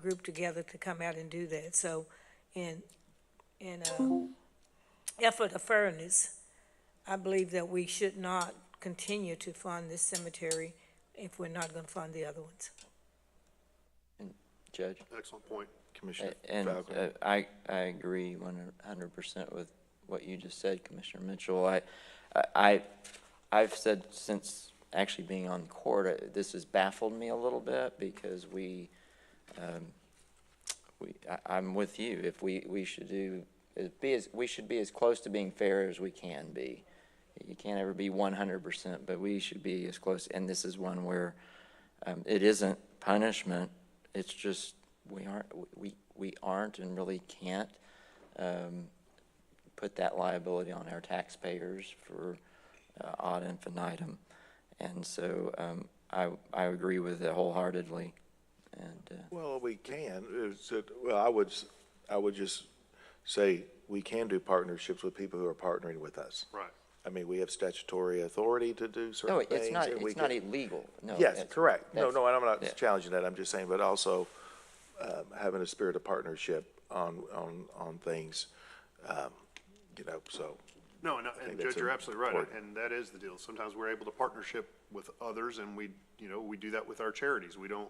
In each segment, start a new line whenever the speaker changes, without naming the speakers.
group together to come out and do that, so in, in, uh, effort of fairness, I believe that we should not continue to fund this cemetery if we're not gonna fund the other ones.
Judge?
Excellent point, Commissioner
A- And
Falconer.
uh, I, I agree one hundred percent with what you just said, Commissioner Mitchell. I, I, I've said since actually being on court, uh, this has baffled me a little bit because we, um, we, I, I'm with you. If we, we should do, it be as, we should be as close to being fair as we can be. You can't ever be one hundred percent, but we should be as close, and this is one where, um, it isn't punishment, it's just, we aren't, we, we aren't and really can't, um, put that liability on our taxpayers for, uh, ad infinitum. And so, um, I, I agree with it wholeheartedly, and, uh,
Well, we can, it's, a- well, I would, s- I would just say, we can do partnerships with people who are partnering with us.
Right.
I mean, we have statutory authority to do
no,
certain things.
it's not,
and we
it's not
can-
illegal, no.
Yes,
that's-
correct. No,
that's-
no, and I'm
yeah.
not challenging that, I'm just saying, but also, um, having a spirit of partnership on, on, on things, um, you know, so,
No, and,
think
and
that's
Judge, you're
a-
absolutely right,
important.
and that is the deal. Sometimes we're able to partnership with others, and we, you know, we do that with our charities. We don't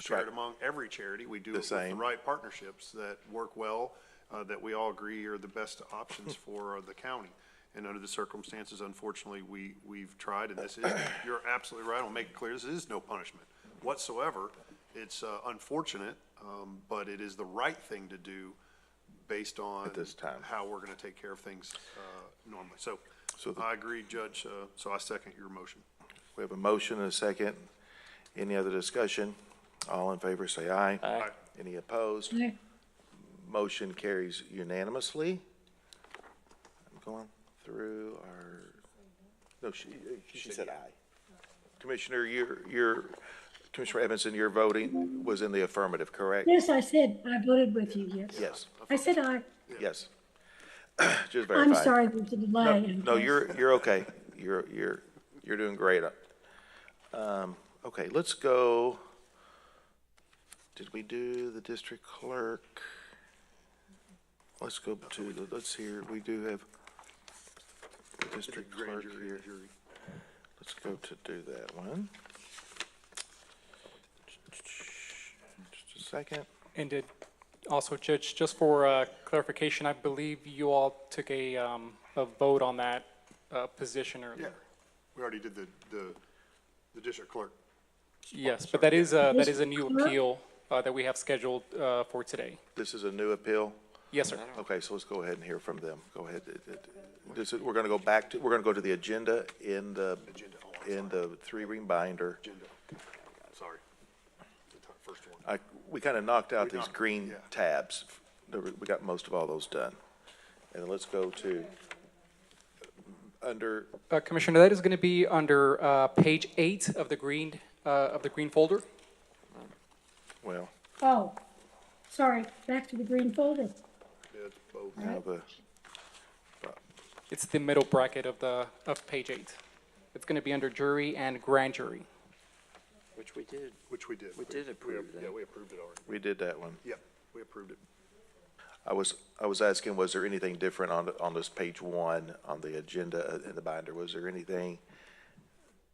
share
right.
it among every charity. We do it with the
same.
right partnerships that work well, uh, that we all agree are the best options for uh, the county. And under the circumstances, unfortunately, we, we've tried, and this is, you're absolutely right, I'll make it clear, this is no punishment whatsoever. It's uh, unfortunate, um, but it is the right thing to do based on
At this time.
how we're going to take care of things uh, normally. So
So the-
I agree, Judge, uh, so I second your motion.
we have a motion and a second. Any other discussion? All in favor, say aye.
Aye.
Any opposed? Motion carries unanimously. I'm going through our, no, she, uh, she said aye. Commissioner, your, your, Commissioner Edmondson, your voting was in the affirmative, correct?
Yes, I said, I voted with you, yes.
Yes,
I said I,
yes. Just verify.
I'm sorry for the
No,
delay.
no, you're, you're okay. You're, you're, you're doing great. Um, okay, let's go. Did we do the district clerk? Let's go to, the let's hear, we do have the district clerk here. Let's go to do that one. Just a second.
And did, also, Judge, just for uh, clarification, I believe you all took a, um, a vote on that uh, position
Yeah,
earlier.
we already did the, the, the district clerk.
Yes, but that is, uh, that is a new
Mr. Clerk?
appeal uh, that we have scheduled uh, for today.
This is a new appeal.
Yes, sir.
Okay, so let's go ahead and hear from them. Go ahead. It- it- This is, we're gonna go back to, we're gonna go to the agenda in the, in the three-ring binder.
Agenda. Sorry. The t- First one.
I, we kinda knocked out
We
these
knocked-
green
yeah.
tabs. There were- We got most of all those done. And let's go to, under,
Uh, Commissioner, that is going to be under uh, page eight of the green, uh, of the green folder.
well,
Oh, sorry, back to the green folder.
Yeah, it's both.
now the,
It's the middle bracket of the, of page eight. It's going to be under jury and grand jury.
Which we did.
Which we did.
We did approve
Yeah,
that.
we approved it already.
we did that one.
Yeah, we approved it.
I was, I was asking, was there anything different on, on this page one, on the agenda uh, in the binder? Was there anything?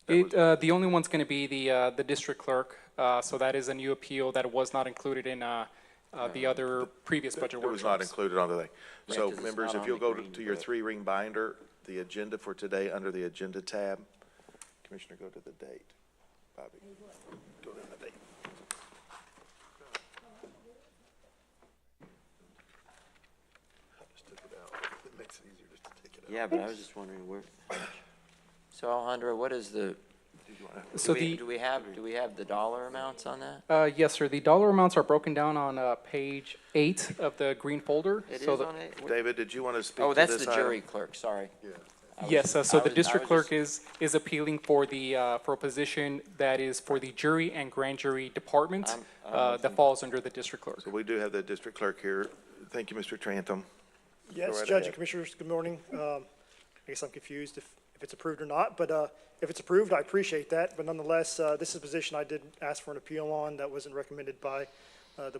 It, uh, the only one's going to be the, uh, the district clerk, uh, so that is a new appeal that was not included in, uh, uh, the other previous budget
It was not
workshops.
included on the thing. So
because it's
members,
not
if
on
you'll
the
go to
green
to your
book.
three-ring binder, the agenda for today, under the agenda tab, Commissioner, go to the date. Bobby, go to the date.
Just took it out. It makes it easier just to take it out.
Yeah, but I was just wondering where, so Alejandro, what is the, do
So
we,
the,
do we have, do we have the dollar amounts on that?
uh, yes, sir, the dollar amounts are broken down on, uh, page eight of the green folder.
It is
So the-
on it? What-
David, did you want to speak
Oh,
to
that's
this
the
item?
jury clerk, sorry. I was
Yes,
just-
uh, so
I
the
was- I
district
was
clerk is, is appealing for the, uh, for a position that is for the jury and grand jury department,
I'm- I'm
uh,
with
that falls under the district clerk.
So we do have the district clerk here. Thank you, Mr. Trantham.
Yes,
right
Judge
ahead.
and Commissioners, good morning. Um, I guess I'm confused if, if it's approved or not, but uh, if it's approved, I appreciate that. But nonetheless, uh, this is a position I did ask for an appeal on that wasn't recommended by